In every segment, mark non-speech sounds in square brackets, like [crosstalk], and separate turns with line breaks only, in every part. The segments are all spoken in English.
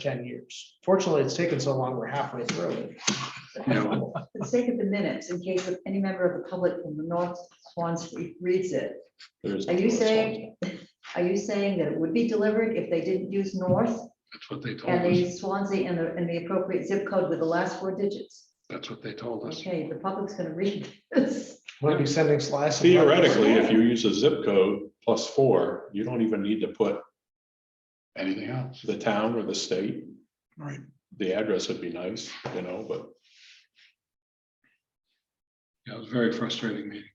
ten years. Fortunately, it's taken so long, we're halfway through it. you know.
For the sake of the minutes, in case any member of the public from the North Swansea reads it,
There's
are you saying, [laughs] are you saying that it would be delivered if they didn't use North
That's what they told
and they
us.
used Swansea and the, and the appropriate zip code with the last four digits?
That's what they told us.
Okay, the public's gonna read this.
We'll be sending slices. of-
Theoretically, if you use a zip code plus four, you don't even need to put
Anything else?
the town or the state.
Right.
The address would be nice, you know, but
Yeah, it was a very frustrating meeting.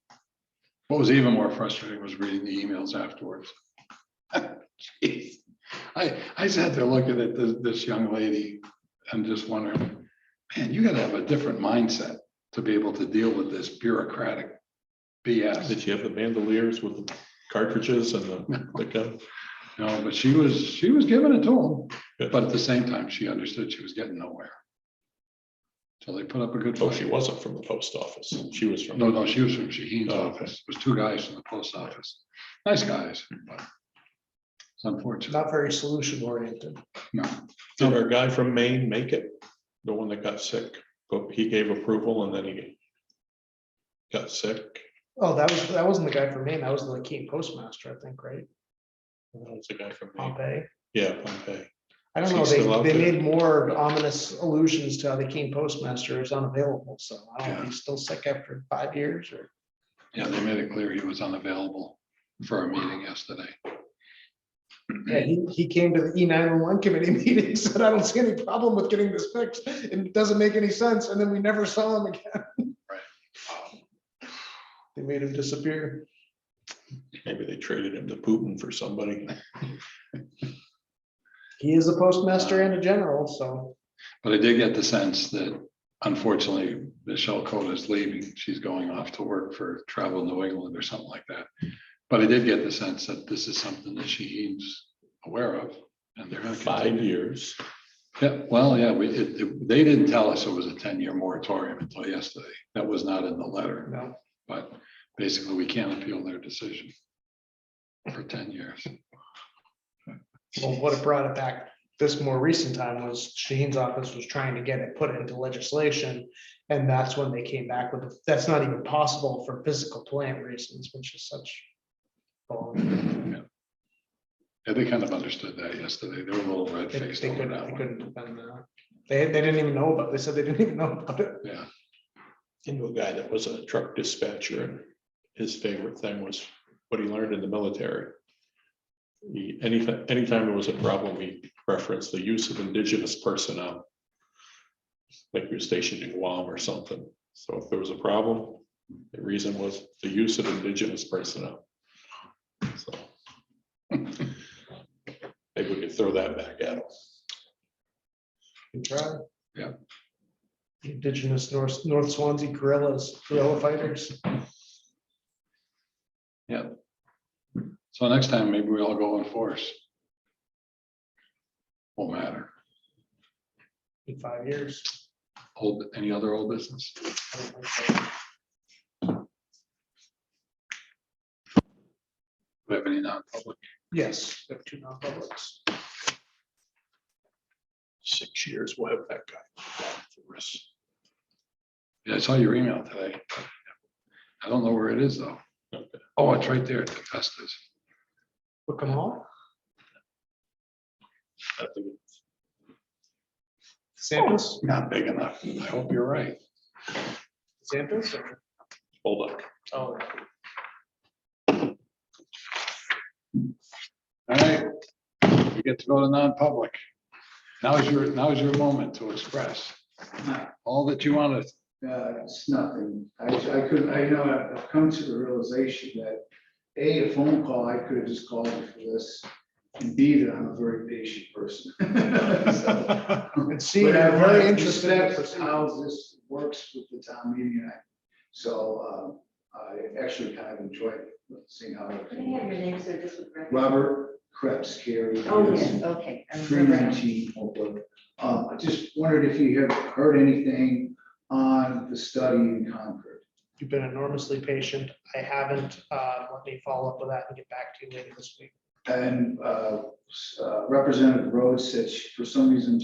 What was even more frustrating was reading the emails afterwards. [laughs] Jeez. I, I sat there looking at this, this young lady and just wondering, man, you gotta have a different mindset to be able to deal with this bureaucratic BS.
did you have the bandoliers with the cartridges and the, the gun?
No, but she was, she was giving it to him,
Good.
but at the same time, she understood she was getting nowhere. So they put up a good.
Oh,
fight.
she wasn't from the post office. She
No,
was from,
no, she was from Shaheen's
Oh,
office. It was two guys from the post office. Nice guys, but it's unfortunate.
Not very solution oriented.
No,
did our guy from Maine make it? The one that got sick, but he gave approval and then he got sick.
Oh, that was, that wasn't the guy from Maine. That was the Keene postmaster, I think, right?
And that was the guy from Maine.
Pompey.
Yeah, Pompey.
I don't
Is he
know,
still out
they, they
there?
made more ominous allusions to how the Keene postmaster is unavailable, so I don't know if he's still sick after five years or.
yeah, they made it clear he was unavailable for our meeting yesterday.
Hmm.
Yeah, he, he came to the E nine one one committee [laughs] meeting, and said, I don't see any problem with getting this fixed, and it doesn't make any sense, and then we never saw him again. They made him disappear.
Maybe they traded him to Putin for somebody.
He is a postmaster and a general, so
But I did get the sense that unfortunately Michelle Cole is leaving. She's going off to work for Travel New England or something like that. But I did get the sense that this is something that Shaheen's aware of and they're gonna
Five
continue.
years.
Yeah, well, yeah, we, it, it- they didn't tell us it was a ten-year moratorium until yesterday. That was not in the letter,
no.
but basically we can't appeal their decision for ten years.
Well, what it brought it back this more recent time was Shaheen's office was trying to get it put into legislation. And that's when they came back with, that's not even possible for physical plant reasons, which is such. bull.
Yeah, they kind of understood that yesterday. They were a little
They they
red-faced over
couldn't,
that
they
one.
couldn't, have done that. they, they didn't even know about, they said they didn't [laughs] even know about it.
Yeah,
into a guy that was a truck dispatcher and his favorite thing was what he learned in the military. He, anytime, anytime there was a problem, he referenced the use of indigenous personnel. Like you're stationed in Guam or something. So if there was a problem, the reason was the use of indigenous personnel. So [laughs] Maybe we could throw that back at him.
Good try.
Yeah.
Indigenous North, North Swansea guerrillas, guerrilla fighters.
so next time maybe we all go in force. Won't matter.
in five years.
Old, any other old business?
I don't think so.
Do we have any non-public?
Yes, we have two non-publics.
Six years, we'll have that guy. for us.
Yeah, I saw your email today. I don't know where it is though.
Okay.
Oh, it's right there at the Festus.
Book them all.
I think
Samples,
Not big enough. I hope you're right.
samples. or-
Hold up.
Oh,
All right, we get to go to non-public. Now is your, now is your moment to express all that you want to.
Uh, it's nothing. I, I could, I know, I've- I've come to the realization that, A, a phone call, I could have just called you for this. And B, that I'm a very patient person. [laughs] So,
And see,
But I
I'm very
really
interested. in the
respect
procedure.
how this works with the town meeting. and I- So, uh, I actually kind of enjoyed seeing how. it
Can I have your
came.
name, sir, just for record?
Robert Krebs, Carrie.
Oh, yes, okay. I
Three
remember now.
nineteen Oakwood. Um, I just wondered if you have heard anything on the study in Concord.
You've been enormously patient. I haven't, uh, let me follow up with that and get back to you later this week.
And uh, s- uh, Representative Rhodes said she- for some reason